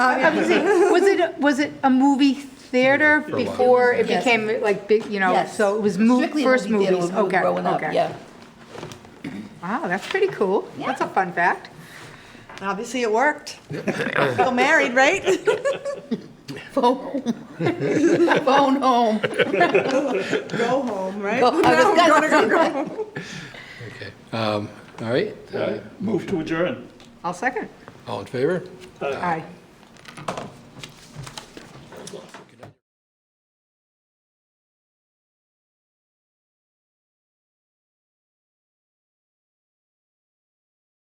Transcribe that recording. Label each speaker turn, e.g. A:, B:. A: I was saying, was it, was it a movie theater before it
B: Yes.
A: became like big, you know,
B: Yes.
A: so it was mo-
B: Strictly a
A: first
B: movie theater
A: movies,
B: when we were
A: okay,
B: growing up,
A: okay.
B: Yeah.
A: Wow, that's pretty cool. That's a fun fact.
C: Obviously, it worked. Still married, right?
B: Phone. Phone home.
C: Go home, right?
B: Go- I was
C: Now
B: gonna
C: we're gonna
B: say
C: go
B: that.
C: home.
D: Okay, um, all right, uh,
E: Move to adjourn.
A: I'll second.
D: all in favor?
A: Aye.